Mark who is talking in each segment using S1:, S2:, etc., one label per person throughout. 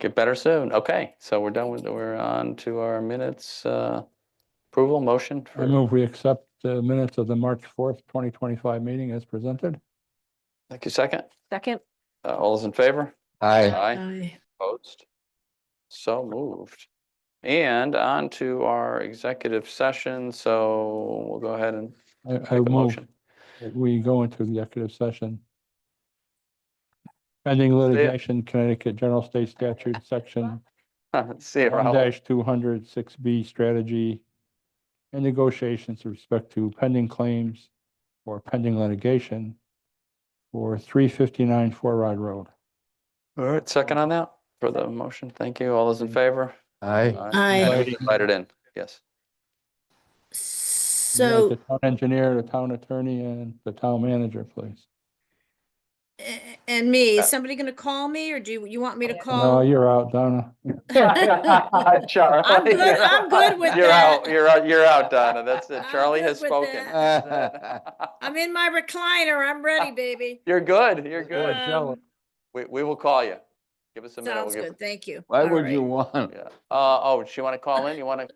S1: Get better soon. Okay, so we're done with, we're on to our minutes, uh, approval, motion.
S2: I
S1: for.
S2: move we accept the minutes of the March fourth, twenty twenty-five meeting as presented.
S1: Thank you, second.
S3: Second.
S1: Uh, All those in favor?
S4: Aye.
S1: Aye. Opposed? So moved. And on to our executive session, so we'll go ahead and
S2: I, I
S1: make a
S2: move
S1: motion.
S2: that we go into the executive session. Pending litigation, Connecticut General State Statute, section
S1: See you,
S2: one
S1: Raul.
S2: two hundred six B strategy and negotiations with respect to pending claims or pending litigation for three fifty-nine Four Rod Road.
S1: All right, second on that for the motion. Thank you. All those in favor?
S4: Aye.
S3: Aye.
S1: Aye. Slide it in, yes.
S2: We'd like The
S3: So
S2: town engineer, the town attorney, and the town manager, please.
S3: a- and me,
S1: Uh,
S3: is somebody going to call me or do you- you want me to
S2: No,
S3: call?
S2: you're out, Donna.
S1: Charlie.
S3: I'm good, I'm good with
S1: You're out,
S3: that.
S1: you're out, you're out, Donna. That's it.
S3: I'm
S1: Charlie
S3: good
S1: has
S3: with
S1: spoken.
S4: that.
S3: I'm in my recliner. I'm ready, baby.
S1: You're good, you're good.
S2: Good, Shelley.
S3: Um,
S1: We, we will call you. Give us a minute.
S3: Sounds
S1: we'll give-
S3: good. Thank you.
S4: Why
S3: All
S4: would you
S3: right.
S4: want?
S1: Yeah. Uh, oh, do you want to call in? You want to?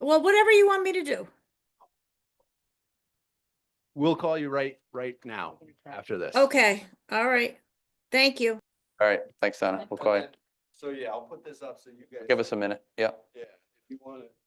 S3: Well, whatever you want me to do.
S5: We'll call you right, right now after this.
S3: Okay, all right. Thank you.
S1: All right, thanks, Donna. We'll call you.
S5: So yeah, I'll put this up so you guys.
S1: Give us a minute. Yeah.
S5: Yeah, if you want to